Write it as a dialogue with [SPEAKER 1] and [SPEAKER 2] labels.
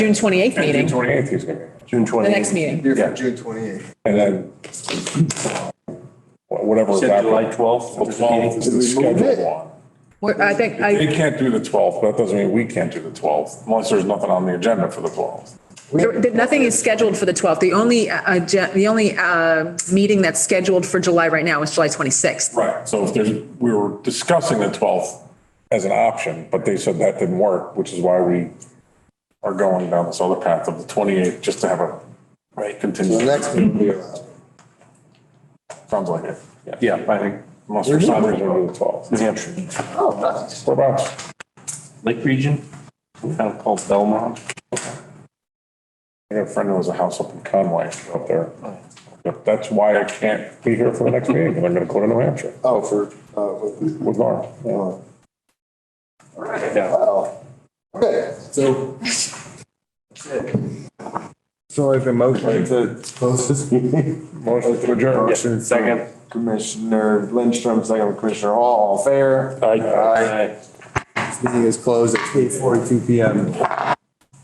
[SPEAKER 1] June 28th meeting,
[SPEAKER 2] June
[SPEAKER 1] the
[SPEAKER 2] 28th he's gonna, be. June 28th.
[SPEAKER 1] next meeting.
[SPEAKER 3] Here
[SPEAKER 2] Yeah.
[SPEAKER 3] for June twenty-eighth.
[SPEAKER 2] And then wha- whatever.
[SPEAKER 4] Said July 12th.
[SPEAKER 2] The 12th is the scheduled one.
[SPEAKER 1] We're- I think,
[SPEAKER 2] They
[SPEAKER 1] I,
[SPEAKER 2] can't do the 12th, but that doesn't mean we can't do the 12th unless there's nothing on the agenda for the 12th.
[SPEAKER 1] there- there- nothing is scheduled for the 12th. The only, uh, uh, gen- the only uh, meeting that's scheduled for July right now is July 26th.
[SPEAKER 2] Right. So if there's, we were discussing the 12th as an option, but they said that didn't work, which is why we are going down this other path of the 28th, just to have a. Right.
[SPEAKER 3] So
[SPEAKER 2] Continue.
[SPEAKER 3] the next meeting will be allowed.
[SPEAKER 2] Sounds like it.
[SPEAKER 4] Yeah, I think
[SPEAKER 2] Unless for some reason we do the 12th.
[SPEAKER 4] New Hampshire,
[SPEAKER 2] Whereabouts?
[SPEAKER 4] Lake Region, town called Belmont.
[SPEAKER 2] I got a friend who has a house up in Conway up there. But That's why I can't be here for the next meeting, because I'm gonna go to New Hampshire
[SPEAKER 3] Oh, for,
[SPEAKER 5] oh,
[SPEAKER 3] uh,
[SPEAKER 2] with Laura. Yeah.
[SPEAKER 3] uh. Wow. Okay, so.
[SPEAKER 5] So I have a motion to close this meeting.
[SPEAKER 2] Motion to adjourn.
[SPEAKER 5] Motion from
[SPEAKER 4] Second.
[SPEAKER 5] Commissioner Lindstrom, second Commissioner Hall, all fair.
[SPEAKER 4] Aye.
[SPEAKER 5] This meeting is closed at eight forty-two PM.